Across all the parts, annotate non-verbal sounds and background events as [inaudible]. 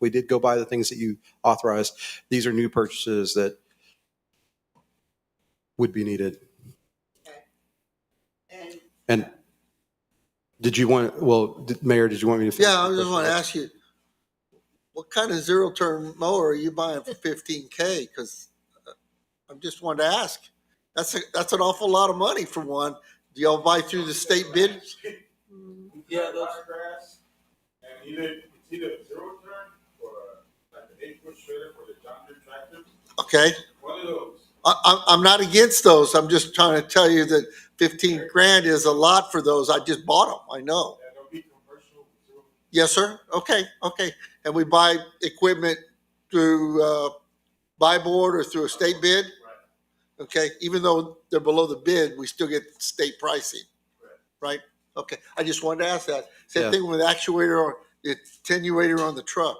we did go by the things that you authorized. These are new purchases that would be needed. And And did you want, well, did- Mayor, did you want me to? finish Yeah, I the just want to question? ask you, what kind of zero turn mower are you buying for fifteen K? Cause uh, I'm just wanted to ask. That's, a that's an awful lot of money for one. Do y'all buy through the state bid? Yeah, those grass, and either it's either a zero turn or like an eight foot shredder for the John Deere tractor. Okay, One of those. I, I'm, I'm not against those. I'm just trying to tell you that fifteen grand is a lot for those. I just bought them, I know. Yeah, they'll be commercial zero. Yes, sir. Okay, okay. And we buy equipment through, uh, buy board or through a state bid? Right. Okay, even though they're below the bid, we still get state pricing, right? Okay, I just wanted to ask that. Yeah. Same thing with actuator or the attenuator on the truck.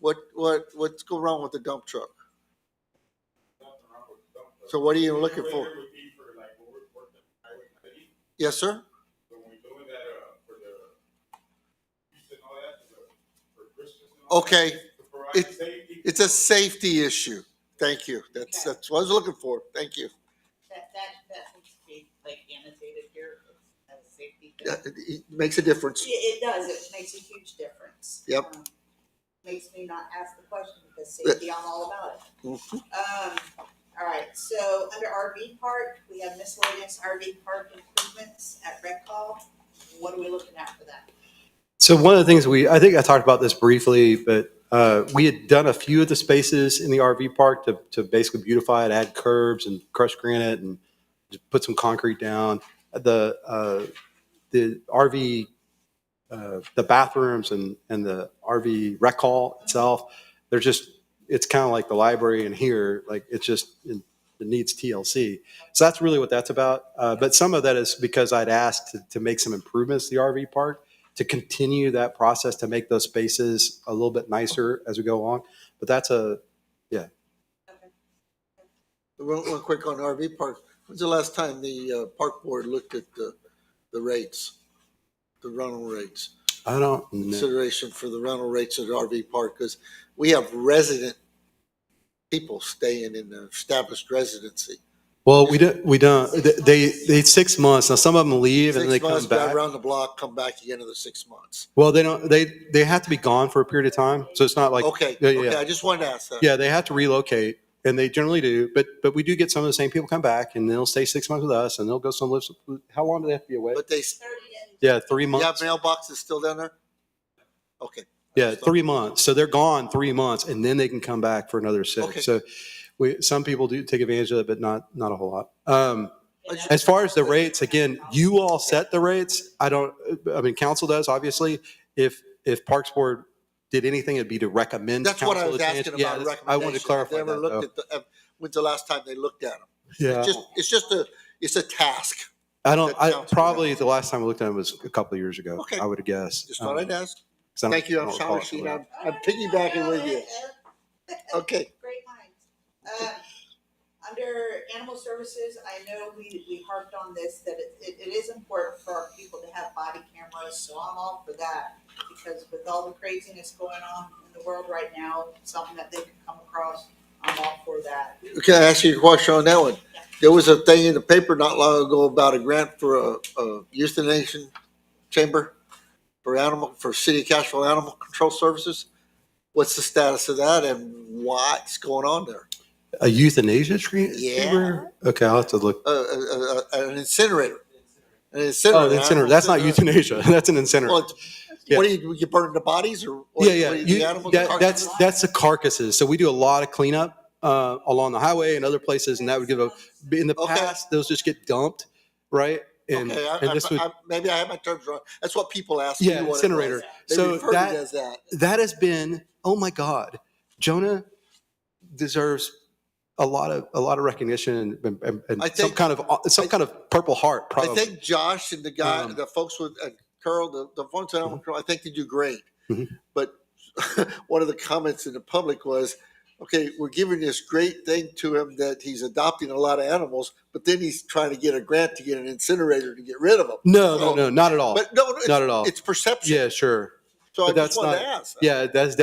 What, what, what's going wrong with the dump truck? Nothing wrong with the dump truck. So what are you looking for? Generator Would be for like when we're working highway ninety, Yes, sir? when we're doing that, uh, for the, using all that, for the- for Christmas and all that. Okay, To provide It- safety. it's a safety issue. Thank you. That's, that's what I was looking for. Thank you. that, that, that needs to be like annotated here as a safety Yeah, thing. It it makes a difference. It, it does, it makes a huge difference. Yep. Um, Makes me not ask the question because safety, I'm all about it. Mhm. Um, all right, so under RV park, we have miscellaneous RV park improvements at Red Call. What are we looking at for that? So one of the things we, I think I talked about this briefly, but uh, we had done a few of the spaces in the RV park to, to basically beautify it, add curbs and crushed granite and just put some concrete down. The, uh, the RV, uh, the bathrooms and, and the RV rec hall itself, they're just, it's kind of like the library in here, like it's just, it it needs TLC. So that's really what that's about. Uh, But some of that is because I'd asked to, to make some improvements to the RV park to continue that process to make those spaces a little bit nicer as we go along. But that's a, One, one quick on RV park. When's the last time the, uh, park board looked at the, the rates? The rental rates? I don't know. consideration for the rental rates at RV park, because we have resident people staying in the established residency. Well, we don't, we don't, they, they, it's six months. Now, some of them leave and then they Six come months, back. drive around the block, come back again another six months. Well, they don't, they, they have to be gone for a period of time. So it's not like, Okay, Yeah, yeah, okay, yeah. I just wanted to ask that. yeah, they have to relocate and they generally do. But, but we do get some of the same people come back and they'll stay six months with us and they'll go some, how long do they have to be away? But they, Thirty and Yeah, three you months. have mailboxes still down there? Okay. Yeah, three months. So they're gone three months and then they can come back for another Okay. six. So we, some people do take advantage of it, but not, not a whole lot. Um, I just- as far as the rates, again, you all set the rates. I don't, I mean, council does, obviously. If, if Parks Board did anything, it'd be to recommend. to That's what I council was to change- asking Yeah, about that's- recommendations. I wanted to clarify They that. ever though. looked at the- uh, When's the last time they looked at them? Yeah, Just, it's just a, it's a task. I don't, that I, council- probably the last time I looked at it was a couple of years ago, Okay. I would guess. Just thought I'd ask. Um, 'cause I don't- Thank you, I I'm don't sorry, recall. Sheena, I'm I'm piggybacking with Oh, you. Okay. Great minds. Um, Under animal services, I know we, we harped on this, that it, it it is important for our people to have body cameras, so I'm all for that. Because with all the craziness going on in the world right now, something that they can come across, I'm all for that. Can I ask you a question on that one? There was a thing in the paper not long ago about a grant for a, a euthanasia chamber for animal, for city of Cashville Animal Control Services. What's the status of that and what's going on there? A euthanasia tree? Yeah. chamber? Okay, I'll have to look. Uh, uh, uh, an incinerator. An Oh, incinerator. the incinerator. That's not euthanasia. [laughs] That's an incinerator. Well, it's- What do you, you burn the bodies or? what- Yeah, yeah. what do you- You- The animals? that- are- that's, that's the carcasses. So we do a lot of cleanup uh, along the highway and other places, and that would give a, in the Okay. past, those just get dumped, right? And, Okay, I, and this would, I, I, maybe I have my terms wrong. That's what people ask me yeah, what it was. incinerator. They So referred to it that, as that. that has been, oh my God, Jonah deserves a lot of, a lot of recognition and, and, and I some think- kind of, uh, some kind of purple heart, I probably. think Josh and the guy, Um, Mm-hmm. the folks with uh, Curl, the, the folks at Alma Curl, I think they do great. Mhm. But [laughs] one of the comments in the public was, okay, we're giving this great thing to him that he's adopting a lot of animals, but then he's trying to get a grant to get an incinerator to get rid of them. No, no, no, not at all. But no, no, it's, Not at all. it's perception. Yeah, sure. so I but that's just wanted to not- ask. Yeah, that's